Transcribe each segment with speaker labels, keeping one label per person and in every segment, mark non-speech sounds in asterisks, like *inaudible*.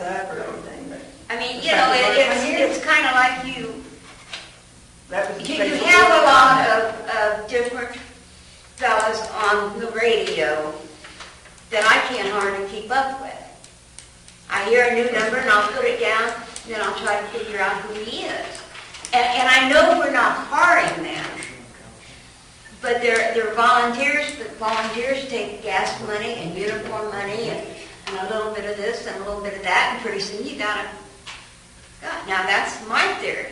Speaker 1: up or anything, but
Speaker 2: I mean, you know, it- it's, it's kind of like you,
Speaker 1: that was.
Speaker 2: you you have a lot of, of different fellas on the radio that I can't hardly keep up with. I hear a new number and I'll put it down, then I'll try to figure out who he is. And, and I know we're not hiring them, but they're, they're volunteers, but volunteers take gas money and uniform money and, and a little bit of this and a little bit of that, and pretty soon you got a, God, now that's my theory.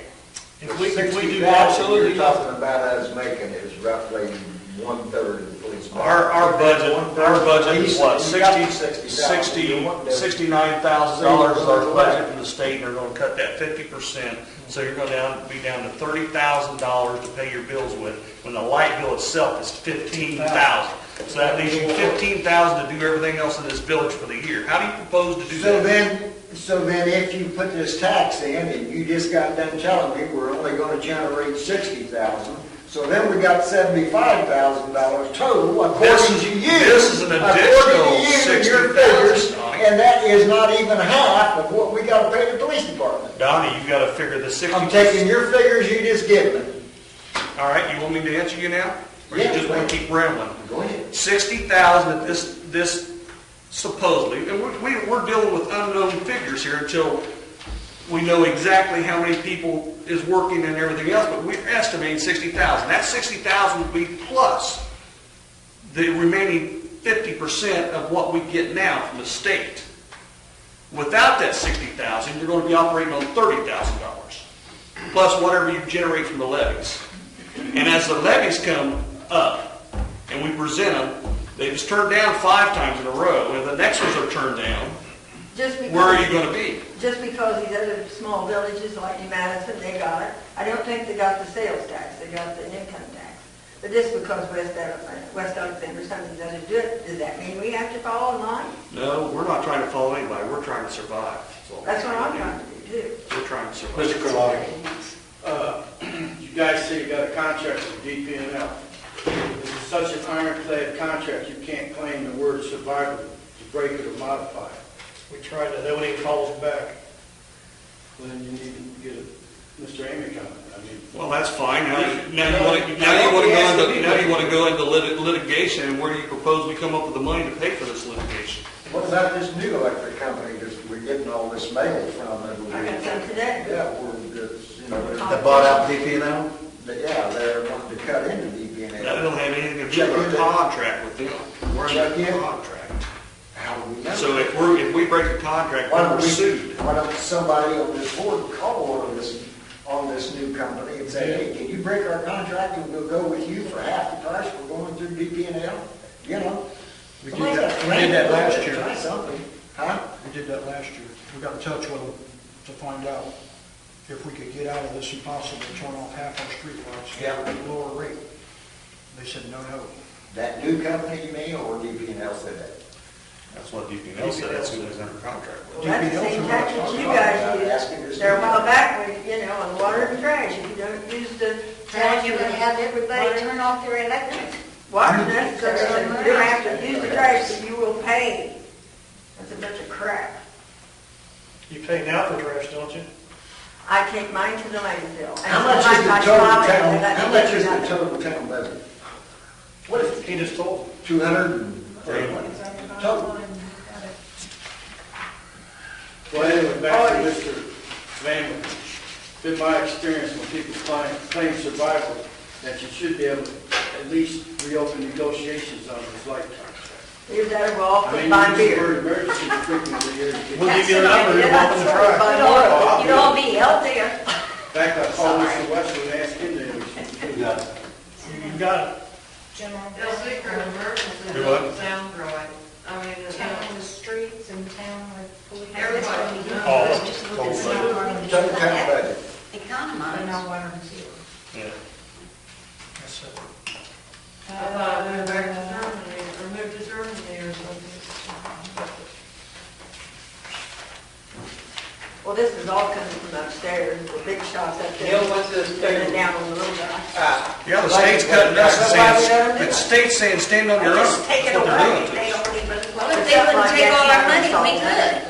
Speaker 3: If we, if we do
Speaker 4: Absolutely,
Speaker 3: absolutely,
Speaker 4: you're talking about us making is roughly one-third of the police. budget.
Speaker 3: our, our budget, our budget is what,
Speaker 4: You
Speaker 3: 60,
Speaker 4: got You want
Speaker 3: sixty,
Speaker 4: to-
Speaker 3: sixty-nine thousand dollars is our budget from the state, and they're gonna cut that fifty percent. So you're gonna down, be down to thirty thousand dollars to pay your bills with, when the light bill itself is fifteen thousand. So that leaves you fifteen thousand to do everything else in this village for the year. How do you propose to do
Speaker 4: So
Speaker 3: that?
Speaker 4: then, so then if you put this tax in, and you just got done telling me we're only gonna generate sixty thousand, so then we got seventy-five thousand dollars total, according
Speaker 3: This-
Speaker 4: to you.
Speaker 3: this is an
Speaker 4: according to
Speaker 3: additional
Speaker 4: you and
Speaker 3: $60,000.
Speaker 4: your figures, And that is not even half of what we gotta pay the police department.
Speaker 3: Donnie, you gotta figure the sixty.
Speaker 4: I'm taking your figures you just given me.
Speaker 3: All right, you want me to answer you now? Or you
Speaker 4: Yeah,
Speaker 3: just wanna
Speaker 4: please.
Speaker 3: keep rambling?
Speaker 4: Go ahead.
Speaker 3: sixty thousand that this, this supposedly, and we're- we, we're dealing with unknown figures here until we know exactly how many people is working and everything else, but we're estimating sixty thousand. That sixty thousand would be plus the remaining fifty percent of what we get now from the state. Without that sixty thousand, you're gonna be operating on thirty thousand dollars, plus whatever you generate from the levies. And as the levies come up and we present them, they was turned down five times in a row, and the next ones are turned down,
Speaker 1: Just because.
Speaker 3: where are you gonna be?
Speaker 1: Just because these other small villages like New Madison, they got it. I don't think they got the sales tax, they got the income tax. But just because West Alexander, West Alexander, something doesn't do it, does that mean we have to follow in line?
Speaker 3: No, we're not trying to follow anybody, we're trying to survive. all
Speaker 1: That's what I'm
Speaker 3: we're
Speaker 1: trying to do too.
Speaker 3: do. We're trying to survive.
Speaker 5: Mr. Karlovic, uh, *clears throat* you guys say you got a contract with DPNL. It's such an ironclad contract, you can't claim the word survival to break it or modify it.
Speaker 6: We tried to, nobody even calls back.
Speaker 5: Well, Then you need to get a, Mr. Amick on it. I mean,
Speaker 3: Well, that's fine, now, you- now you wanna, now you wanna go into, now you wanna go into lit- litigation, and where do you propose we come up with the money to pay for this litigation?
Speaker 4: What about this new electric company that we're getting all this mail from? that we-
Speaker 1: I got some today.
Speaker 4: Yeah, we're, it's, you know. they're-
Speaker 1: They bought out
Speaker 4: DPNL? Yeah, they're wanting to cut into DPNL.
Speaker 3: That don't have anything to do with our contract with them, we're
Speaker 4: Check
Speaker 3: under
Speaker 4: in.
Speaker 3: contract.
Speaker 4: How do we know?
Speaker 3: So if we're, if we break the contract,
Speaker 4: Why
Speaker 3: we're
Speaker 4: don't we,
Speaker 3: sued.
Speaker 4: why don't somebody on this board call on this, on this new company and say, hey, can you break our contract and we'll go with you for half the price we're going through DPNL? You know?
Speaker 6: We did
Speaker 4: Somebody's
Speaker 6: that-
Speaker 4: gotta
Speaker 6: we did that
Speaker 4: think about
Speaker 6: last
Speaker 4: it,
Speaker 6: year.
Speaker 4: Try something, huh?
Speaker 6: We did that last year. We got in touch with them to find out if we could get out of this impossible, turn off half our streetlights at a lower rate. They said, no, no.
Speaker 4: That new company you mean, or DPNL said that?
Speaker 3: That's what DPL said, that's who was under contract with.
Speaker 1: Well, that's the same
Speaker 6: DPLs are
Speaker 1: tax that
Speaker 6: not-
Speaker 1: you
Speaker 4: I'm asking
Speaker 1: guys
Speaker 4: this
Speaker 1: use. There a while
Speaker 4: now.
Speaker 1: back, when, you know, on water and trash, if you don't use the
Speaker 2: Now
Speaker 1: tax.
Speaker 2: you're gonna have everybody turn off their electric.
Speaker 1: Water, that's, you don't have to use the trash, but you will pay. That's a bunch of crap.
Speaker 6: You pay now for trash, don't you?
Speaker 1: I take mine to the landfill. And
Speaker 4: How much is the
Speaker 1: sometimes I
Speaker 4: total
Speaker 1: drive it,
Speaker 4: town,
Speaker 1: and I
Speaker 4: how
Speaker 1: don't
Speaker 4: much
Speaker 1: do
Speaker 4: is the
Speaker 1: nothing.
Speaker 4: total town budget? What is
Speaker 6: He just told them.
Speaker 4: two hundred and thirty-one? Total.
Speaker 5: Well, anyway, back to Mr. Vanwood. Been my experience when people claim, claim survival, that you should be able to at least reopen negotiations on this light contract.
Speaker 1: You're better off
Speaker 5: I
Speaker 1: to
Speaker 5: mean,
Speaker 1: buy
Speaker 5: you use the
Speaker 1: beer.
Speaker 5: word emergency frequently here. to get-
Speaker 6: We'll give you a number, you're welcome to try.
Speaker 1: You'd all- You'd all be healthier.
Speaker 5: In fact, I called Mr. Westwood and asked him to,
Speaker 6: You got it.
Speaker 7: They'll think an emergency,
Speaker 3: Do what?
Speaker 7: doesn't sound right. I mean, it's
Speaker 8: town
Speaker 7: not,
Speaker 8: on the streets and town with.
Speaker 7: everybody knows.
Speaker 3: Oh,
Speaker 7: Just look
Speaker 3: totally.
Speaker 7: at someone.
Speaker 4: Total town budget.
Speaker 7: I
Speaker 2: Economize.
Speaker 7: know what I'm saying.
Speaker 3: Yeah.
Speaker 6: That's it.
Speaker 7: I thought I moved back to Germany, or moved to Germany or something.
Speaker 1: Well, this is all coming from upstairs, the big shots up there.
Speaker 9: Neil, what's this
Speaker 1: Turn it
Speaker 9: thing?
Speaker 1: down a little bit.
Speaker 9: Ah,
Speaker 3: Yeah, the state's cutting us and saying, the state's saying, stand on your own.
Speaker 1: Just take it
Speaker 3: That's what they're
Speaker 1: away,
Speaker 3: doing to
Speaker 1: they
Speaker 3: us.
Speaker 1: don't even.
Speaker 2: Well, if they wouldn't take all our money, we could. Uh,